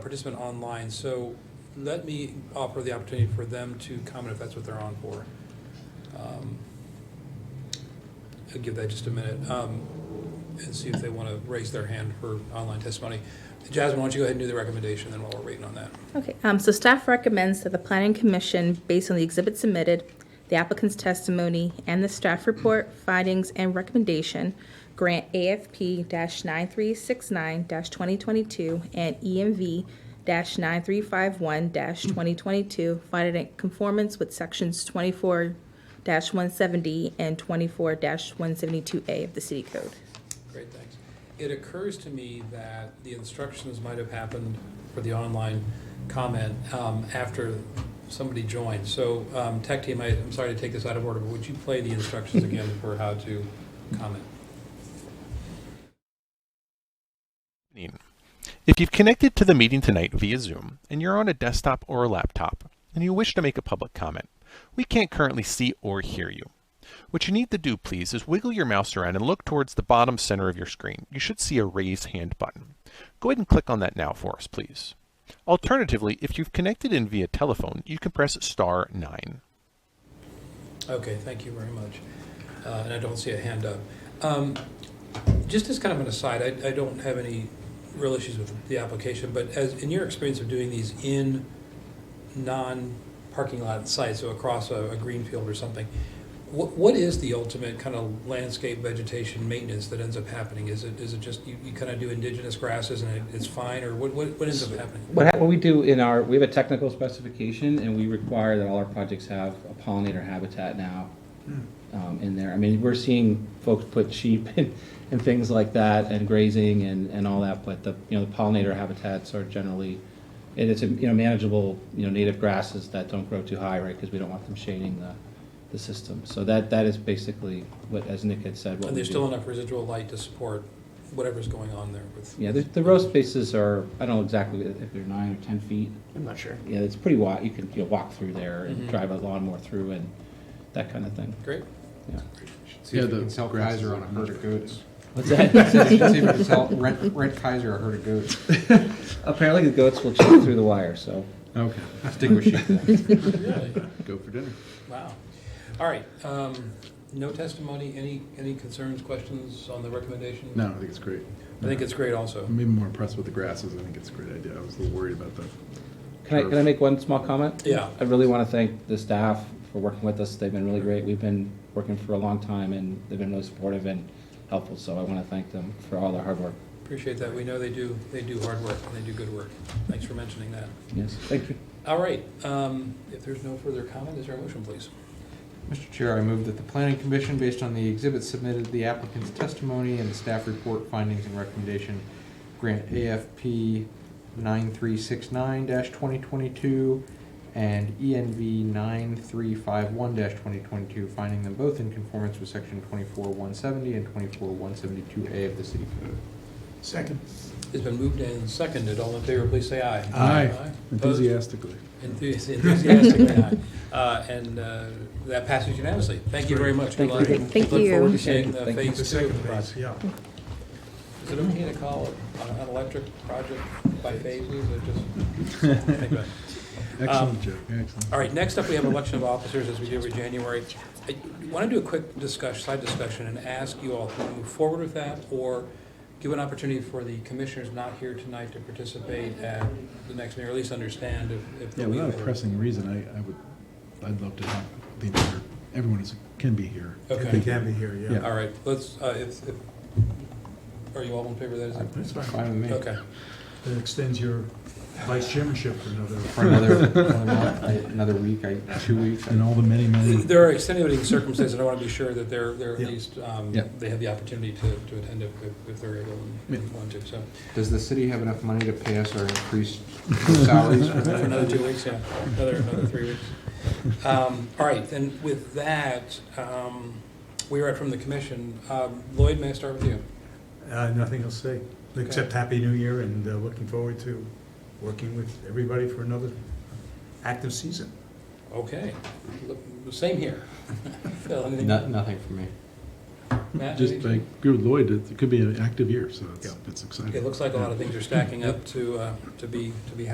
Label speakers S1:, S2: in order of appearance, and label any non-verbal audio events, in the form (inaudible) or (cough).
S1: participant online, so let me offer the opportunity for them to comment if that's what they're on for. Um, I'll give that just a minute, um, and see if they want to raise their hand for online testimony. Jasmine, why don't you go ahead and do the recommendation, then while we're waiting on that.
S2: Okay, um, so staff recommends that the planning commission, based on the exhibit submitted, the applicant's testimony, and the staff report, findings, and recommendation, grant AFP nine three six nine twenty twenty-two and EMV nine three five one twenty twenty-two, finding it in conformance with sections twenty-four one seventy and twenty-four one seventy-two A of the city code.
S1: Great, thanks. It occurs to me that the instructions might have happened for the online comment um, after somebody joined. So um, tech team, I- I'm sorry to take this out of order, but would you play the instructions again for how to comment?
S3: Evening. If you've connected to the meeting tonight via Zoom and you're on a desktop or a laptop and you wish to make a public comment, we can't currently see or hear you. What you need to do, please, is wiggle your mouse around and look towards the bottom center of your screen. You should see a raise hand button. Go ahead and click on that now for us, please. Alternatively, if you've connected in via telephone, you can press star 9.
S1: Okay, thank you very much. Uh, And I don't see a hand up. Um, Just as kind of an aside, I I don't have any real issues with the application, but as, in your experience of doing these in non-parking lot sites, so across a a green field or something, what what is the ultimate kind of landscape vegetation maintenance that ends up happening? Is it, is it just, you you kind of do indigenous grasses and it- it's fine, or what what what ends up happening?
S4: What, hap- what we do in our, we have a technical specification and we require that all our projects have a pollinator habitat now
S1: Hmm.
S4: um, in there. I mean, we're seeing folks put sheep (laughs) and, and things like that and grazing and, and all that, but the, you know, the pollinator habitats are generally, and it's, a, you know, manageable, you know, native grasses that don't grow too high, right? Because we don't want them shading the, the system. So that, that is basically what, as Nick had said, what
S1: And
S4: we
S1: there's still
S4: do.
S1: enough residual light to support whatever's going on there with?
S4: Yeah, the, the row spaces are, I don't know exactly if they're nine or 10 feet.
S5: I'm not sure. Mm-hmm.
S4: Yeah, it's pretty wide, you can, you know, walk through there and
S1: Mhm.
S4: drive a lawnmower through and that kind of thing, (laughs)
S1: Great?
S4: yeah.
S6: See if we can sell Kaiser on a herd of goats.
S4: What's that?
S6: See if we can sell, rent, rent Kaiser a herd of goats.
S4: (laughs) Apparently the goats will chew through the wire, so.
S6: Okay. Stick with (laughs) sheep.
S1: Really?
S6: Go for dinner.
S1: Wow. All right, um, no testimony, any, any concerns, questions on the recommendation?
S7: No, I think it's great.
S1: I think it's great also.
S7: I'm even more impressed with the grasses. I think it's a great idea. I was a little worried about that.
S4: Can I, can I make one small comment?
S1: Yeah.
S4: I really want to thank the staff for working with us, they've been really great, we've been working for a long time and they've been really supportive and helpful, so I want to thank them for all their hard work.
S1: Appreciate that. We know they do, they do hard work and they do good work. Thanks for mentioning that.
S4: Yes, thank you.
S1: All right, um, if there's no further comment, is there a motion, please?
S6: Mr. Chair, I move that the planning commission, based on the exhibits submitted, the applicant's testimony and the staff report findings and recommendation, grant AFP nine three six nine twenty twenty-two and ENV nine three five one twenty twenty-two, finding them both in conformance with section twenty-four one seventy and twenty-four one seventy-two A of the city code.
S7: Second.
S1: It's been moved and seconded. All in favor, please say aye.
S7: Aye,
S1: Opposed?
S7: enthusiastically.
S1: Enthusi- Enthusiastically aye. Uh, And uh, that passes unanimously. Thank you very much. Good
S4: Thank you.
S1: luck.
S2: Thank
S1: Look forward to
S2: you.
S1: seeing the
S4: Thank you.
S1: phase two of the project.
S7: yeah.
S1: Is it okay to call it an electric project by phases or just? Anyway.
S7: (laughs) Excellent joke, excellent.
S1: Um, All right, next up, we have election of officers as we do every January. I want to do a quick discussion, side discussion and ask you all if you want to move forward with that or give an opportunity for the commissioners not here tonight to participate at the next meeting, or at least understand if. if
S7: Yeah,
S1: we
S7: without a
S1: were-
S7: pressing reason, I, I would, I'd love to have the entire, everyone is, can be here.
S1: Okay.
S8: They can be here, yeah.
S7: Yeah.
S1: All right, let's, uh, if, if, are you all in favor of that? Is it-
S8: That's fine.
S6: Fine with me.
S1: Okay.
S8: That extends your vice chairmanship for another.
S6: For another,
S7: (laughs)
S6: another month,
S7: uh,
S6: I- another week, I, two weeks, I
S7: And all the many, many.
S1: There are extenuating circumstances, and I want to be sure that they're, they're at
S8: Yeah.
S1: least, um,
S7: Yeah.
S1: they have the opportunity to, to attend if, if- if they're able
S7: Yeah.
S1: and want to, so.
S6: Does the city have enough money to pay us our increased salaries for
S1: (laughs) For another
S6: that?
S1: two weeks, yeah, another, another three weeks. Um, All right, and with that, um, we are at from the commission. Um, Lloyd, may I start with you?
S8: Uh, Nothing else to say, except Happy New Year and uh, looking forward to working with everybody for another active season.
S1: Okay, Look, same here. (laughs) Phil, anything?
S6: No- Nothing for me.
S1: Matt,
S7: Just
S1: anything?
S7: like, agree with Lloyd, it it could be an active year, so it's,
S8: Yeah.
S7: it's exciting.
S1: It looks like a lot of things are stacking up to, uh, to be, to be